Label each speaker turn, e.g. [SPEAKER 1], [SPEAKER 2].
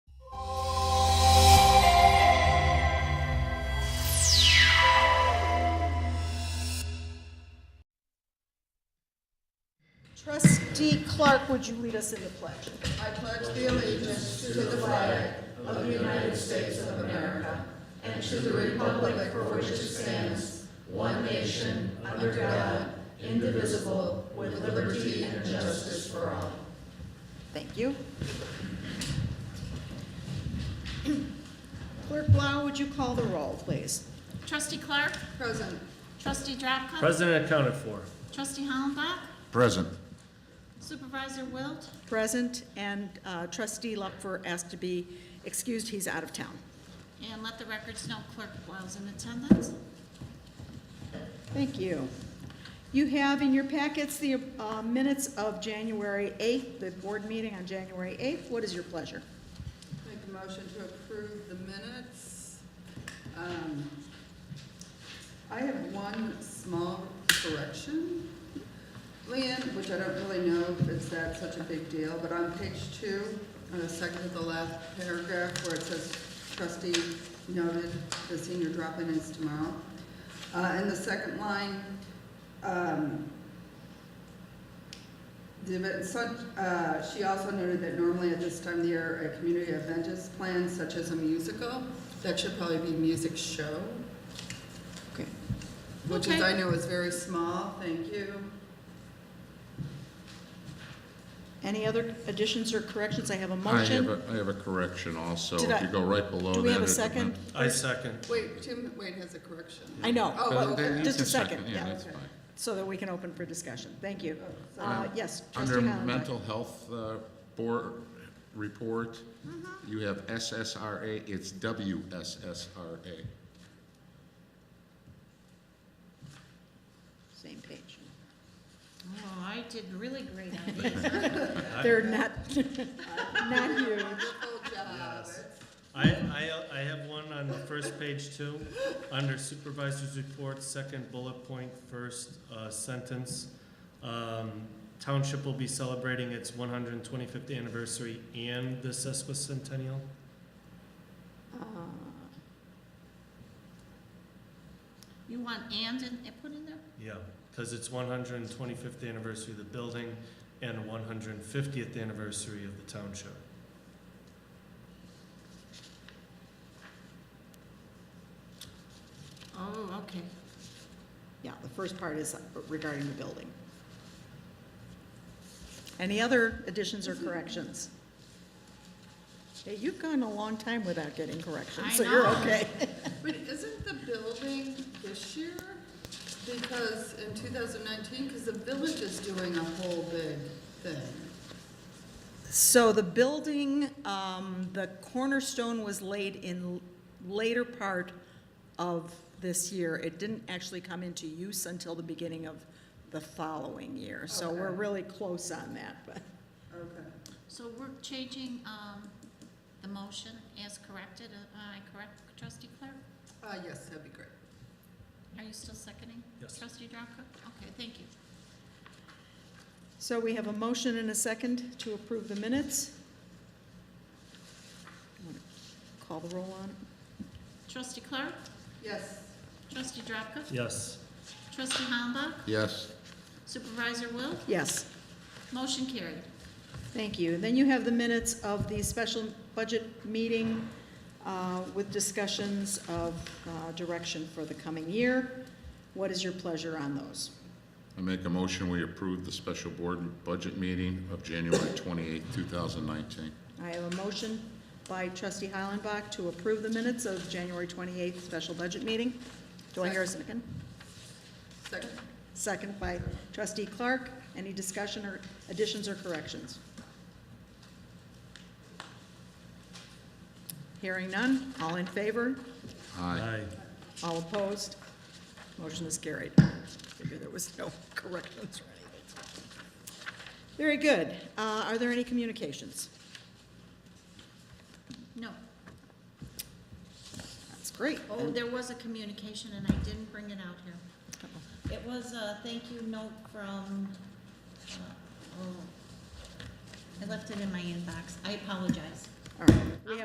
[SPEAKER 1] Trustee Clark, would you lead us in the pledge?
[SPEAKER 2] I pledge the allegiance to the flag of the United States of America and to the republic for which it stands, one nation, under God, indivisible, with liberty and justice for all.
[SPEAKER 1] Thank you. Clerk Blau, would you call the roll, please?
[SPEAKER 3] Trustee Clark,
[SPEAKER 2] Present.
[SPEAKER 3] Trustee Drapka,
[SPEAKER 4] President accounted for.
[SPEAKER 3] Trustee Hollenbach,
[SPEAKER 5] Present.
[SPEAKER 3] Supervisor Wilt,
[SPEAKER 1] Present, and uh, trustee Luckfer asked to be excused, he's out of town.
[SPEAKER 3] and let the records know Clerk Wiles in attendance.
[SPEAKER 1] Thank you. You have in your packets the uh, minutes of January 8th, the board meeting on January 8th. What is your pleasure?
[SPEAKER 2] Make a motion to approve the minutes. Um, I have one small correction, Leanne, which I don't really know if it's that such a big deal, but on page two, on the second to the last paragraph where it says trustee noted the senior drop-in is tomorrow. Uh, in the second line, um, the event, such, uh, she also noted that normally at this time of the year, a community event is planned, such as a musical. That should probably be music show,
[SPEAKER 1] Okay.
[SPEAKER 2] which is,
[SPEAKER 3] Okay.
[SPEAKER 2] I know is very small, thank you.
[SPEAKER 1] Any other additions or corrections? I have a
[SPEAKER 5] I have
[SPEAKER 1] motion.
[SPEAKER 5] a, I have a correction also.
[SPEAKER 1] Did
[SPEAKER 5] If
[SPEAKER 1] I-
[SPEAKER 5] you go right below that.
[SPEAKER 1] Do we have a
[SPEAKER 5] it's
[SPEAKER 1] second?
[SPEAKER 4] I second.
[SPEAKER 2] Wait, Tim, Wade has a correction.
[SPEAKER 1] I know.
[SPEAKER 2] Oh,
[SPEAKER 5] But
[SPEAKER 2] okay.
[SPEAKER 5] then you
[SPEAKER 1] Just a
[SPEAKER 5] can
[SPEAKER 1] second,
[SPEAKER 5] Yeah,
[SPEAKER 1] yeah.
[SPEAKER 5] that's
[SPEAKER 2] Okay.
[SPEAKER 5] fine.
[SPEAKER 1] So that we can open for discussion. Thank you. Uh, Yes, trustee
[SPEAKER 5] Under
[SPEAKER 1] Hollenbeck.
[SPEAKER 5] mental health uh, board report,
[SPEAKER 1] Mm-hmm.
[SPEAKER 5] you have SSRA, it's WSSRA.
[SPEAKER 1] Same page.
[SPEAKER 3] Oh, I did really great on these.
[SPEAKER 1] They're not, not huge.
[SPEAKER 2] Wonderful job.
[SPEAKER 4] Yes. I, I, I have one on the first page too, under supervisor's report, second bullet point, first uh, sentence. Um, Township will be celebrating its 125th anniversary and the sesquicentennial.
[SPEAKER 1] Uh,
[SPEAKER 3] You want and in, eh, put in there?
[SPEAKER 4] Yeah, because it's 125th anniversary of the building and 150th anniversary of the township.
[SPEAKER 3] Oh, okay.
[SPEAKER 1] Yeah, the first part is regarding the building. Any other additions or corrections? Hey, you've gone a long time without getting
[SPEAKER 3] I
[SPEAKER 1] corrections, so you're
[SPEAKER 3] know.
[SPEAKER 1] okay.
[SPEAKER 2] But isn't the building this year? Because in 2019, because the village is doing a whole big thing.
[SPEAKER 1] So the building, um, the cornerstone was laid in later part of this year. It didn't actually come into use until the beginning of the following year. So we're
[SPEAKER 2] Okay.
[SPEAKER 1] really close on that, but.
[SPEAKER 2] Okay.
[SPEAKER 3] So we're changing um, the motion as corrected. Am I correct, Trustee Clark?
[SPEAKER 2] Uh, yes, that'd be great.
[SPEAKER 3] Are you still seconding?
[SPEAKER 4] Yes.
[SPEAKER 3] Trustee Drapka? Okay, thank you.
[SPEAKER 1] So we have a motion and a second to approve the minutes. Call the roll on. it.
[SPEAKER 3] Trustee Clark,
[SPEAKER 2] Yes.
[SPEAKER 3] Trustee Drapka,
[SPEAKER 4] Yes.
[SPEAKER 3] Trustee Hollenbach,
[SPEAKER 5] Yes,
[SPEAKER 3] Supervisor Wilt,
[SPEAKER 1] Yes,
[SPEAKER 3] motion carried.
[SPEAKER 1] thank you. Then you have the minutes of the special budget meeting uh, with discussions of uh, direction for the coming year. What is your pleasure on those?
[SPEAKER 5] I make a motion, we approve the special board budget meeting of January twenty-eighth, two thousand nineteen.
[SPEAKER 1] I have a motion by trustee Heilenbach to approve the minutes of January 28th special budget meeting. Do I hear a second?
[SPEAKER 2] Second.
[SPEAKER 1] Second by trustee Clark. Any discussion or additions or corrections? Hearing none. All in favor?
[SPEAKER 5] Aye.
[SPEAKER 4] Aye.
[SPEAKER 1] All opposed? Motion is carried. Figure there was no corrections or anything. Very good. Uh, Are there any communications?
[SPEAKER 3] No.
[SPEAKER 1] That's great.
[SPEAKER 3] Oh, there was a communication and I didn't bring it out here. It was a thank you note from, uh, oh, I left it in my inbox. I apologize.
[SPEAKER 1] All right. We have